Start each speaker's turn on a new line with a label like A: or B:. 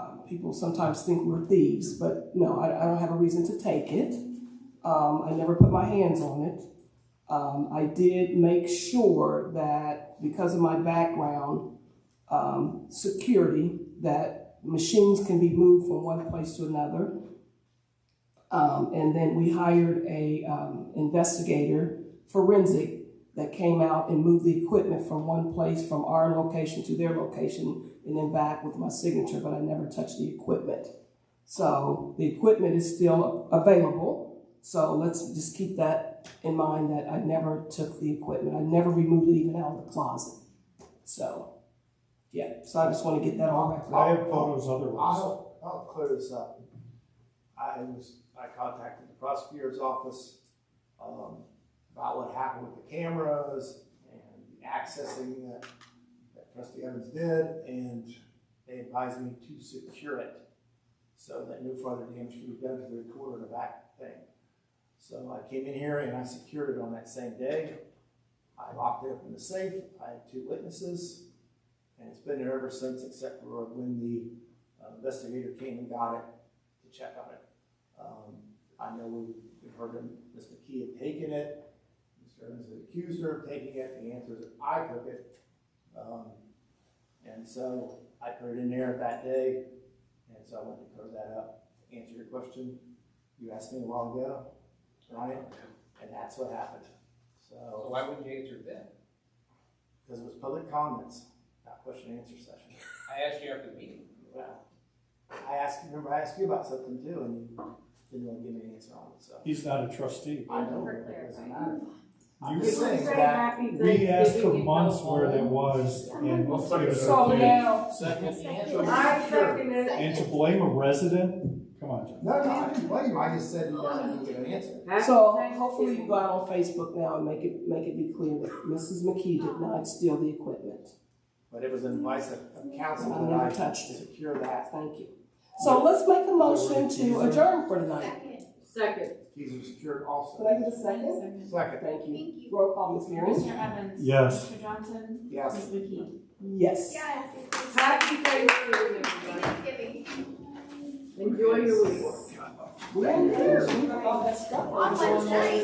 A: Um, people sometimes think we're thieves, but no, I, I don't have a reason to take it. Um, I never put my hands on it. Um, I did make sure that because of my background, um, security, that machines can be moved from one place to another. Um, and then we hired a um, investigator, forensic, that came out and moved the equipment from one place, from our location to their location, and then back with my signature, but I never touched the equipment. So the equipment is still available. So let's just keep that in mind that I never took the equipment. I never removed it even out of the closet. So, yeah, so I just want to get that all back.
B: I have photos otherwise.
C: I'll, I'll clear this up. I was, I contacted the prosecutor's office, um, about what happened with the cameras and the accessing that, that trustee Evans did, and they advised me to secure it so that no further damage could be done to the recorder or the back thing. So I came in here and I secured it on that same day. I locked it up in the safe, I had two witnesses, and it's been there ever since, except for when the uh, investigator came and got it to check on it. Um, I know we- we've heard him, Ms. McKee had taken it, Mr. Evans had accused her of taking it, the answer is I took it. Um, And so I put it in there that day, and so I wanted to clear that up, to answer your question. You asked me a while ago, Ryan, and that's what happened. So,
D: So why wouldn't you answer that?
C: because it was public comments, not question and answer session.
D: I asked you after the meeting.
C: Well, I asked, remember I asked you about something too, and you didn't want to give me an answer on it, so.
B: He's not a trustee.
C: I know,
E: For
C: it doesn't
E: clarifying.
C: matter. I'm
B: You-
C: just saying
E: Say
C: that,
E: happy
B: We asked for
E: Thanksgiving,
B: months
E: y'all.
B: where that was and.
F: Well, so-
B: it was
A: So
B: a thing.
A: now,
E: I second it.
B: And to blame a resident? Come on, John.
C: no, no, I didn't blame you, I just said you didn't give an answer.
A: So hopefully you go out on Facebook now and make it, make it be clear that Mrs. McKee did not steal the equipment.
C: But it was an advice of of counsel
A: I never
C: that I
A: touched it.
C: secure that,
A: Thank you. So let's make a motion to adjourn for tonight.
F: Second.
E: Second.
C: keys were secured
A: Could I
C: also.
A: get a second?
C: Second,
A: Thank you.
F: Thank you.
A: Roll call, Ms. Mears?
F: Mr. Evans.
B: Yes.
F: Mr. Johnson.
C: yes.
F: Ms. McKee.
A: Yes.
F: Yes.
E: Happy Thanksgiving, everybody.
F: Thanksgiving.
E: Enjoy your week.
A: We ain't finished. We got all that stuff.
F: On Wednesday.